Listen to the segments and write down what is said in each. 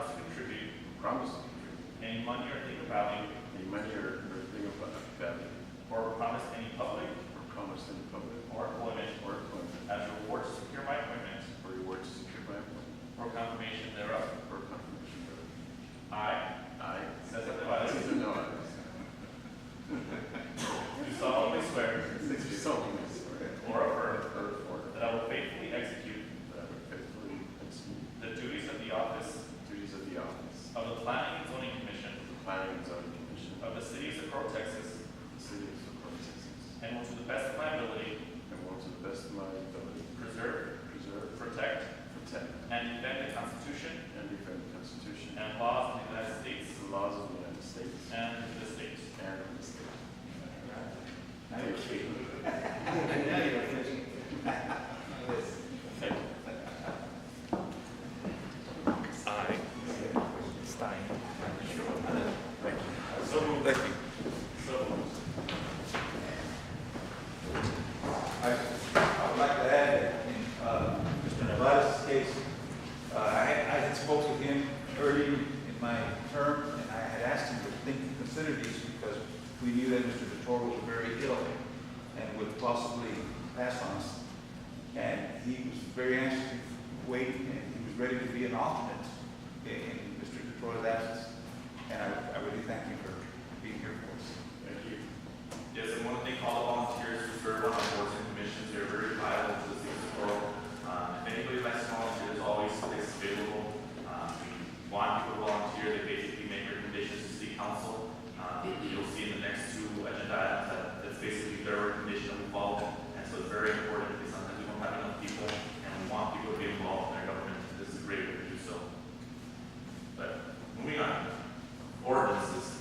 uh, uh, and will to the best of my ability and will to the best of my ability preserve, preserve, protect, protect, and defend the Constitution and defend the Constitution and laws of the United States and laws of the United States and the state. and of the state. Now you're cheating. Now you're fishing. Thank you. I, Stein. So moved. So moved. I I would like to add that in uh, Mr. Nevada's case, uh, I had- I had spoke with him early in my term, and I had asked him to think, consider these because we knew that Mr. Vitore was very ill and would possibly pass on us. And he was very anxious to wait, and he was ready to be an alternate in- in Mr. Vitore's absence. And I I really thank you for being here for us. Thank you. Yes, and one thing, all the volunteers who serve on our boards and commissions, they're very vital to the city's world. Um, if anybody likes to volunteer, there's always space available. Um, we want people to volunteer, they basically make recommendations to city council. Um, you'll see in the next two agenda items that, that's basically their recommendation that we follow. And so it's very important, because sometimes we don't have enough people, and we want people to be involved in their government, this is a great way to do so. But, moving on, ordinances.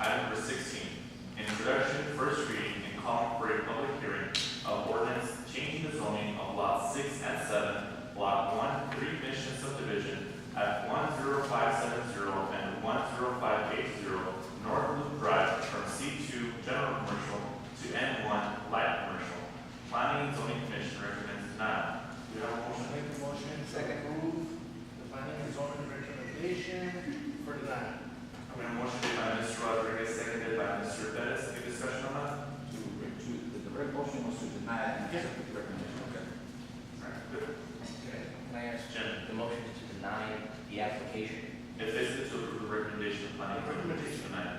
Item number sixteen, Introduction, first reading, and calling for a public hearing of ordinance changing the zoning of lot six and seven, block one, three mission subdivision at one zero five seven zero and one zero five eight zero, North Loop Drive, from C two general commercial to N one light commercial. Planning and zoning commission recommends denial. Do you have a motion? Make a motion. Second. Move the planning and zoning recommendation for denial. We have a motion made by Mr. Rodriguez, seconded by Mr. Pettis. Any discussion on that? To, to, the direct motion was to deny and accept the recommendation, okay? All right, good. Can I ask, Jim, the motion is to deny the application? if this is to approve the recommendation of planning and recommendation tonight,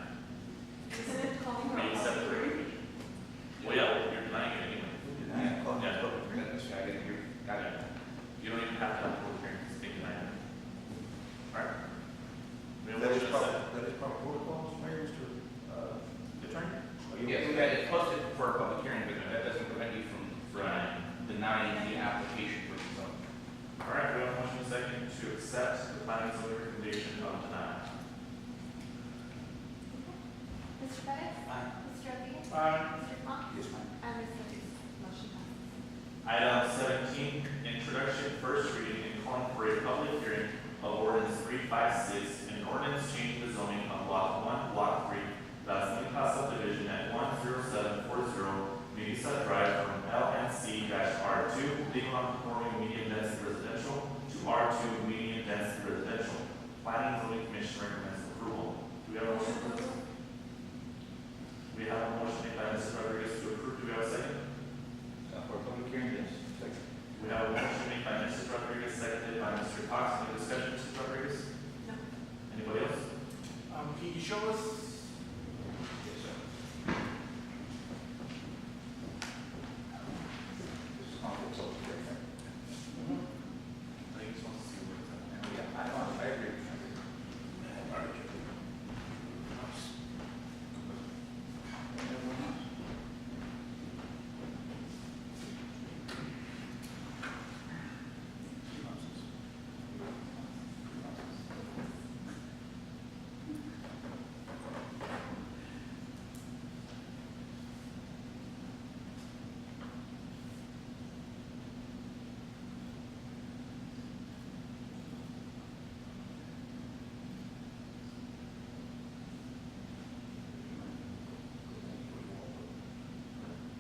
Isn't it calling for Are a you public accepting hearing? Well, yeah, you're denying it anyway. Deny and call Yeah. it public hearing. That's right, I didn't hear. Got it. You don't even have to have a public hearing, just think denying it. Alright. We have a That is motion and a proper, that is proper protocol, Mr. Mayor, Mr. second. Uh, Attorney? are you Yes, okay with that that? is posted for a public hearing, but that doesn't prevent you from Right. denying the application for the zone. Alright, we have a motion and a second to accept the planning and zoning recommendation of denial. Mr. Pettit? Aye. Mr. Rodriguez? Aye. Mr. Funk? Yes, ma'am. And Ms. Solis? Motion passes. Item seventeen, introduction, first reading, and calling for a public hearing of ordinance three five six, an ordinance changing the zoning of block one, block three, Las Minas subdivision at one zero seven four zero, Mesa Drive from LNC R two, legal non Uh, Um,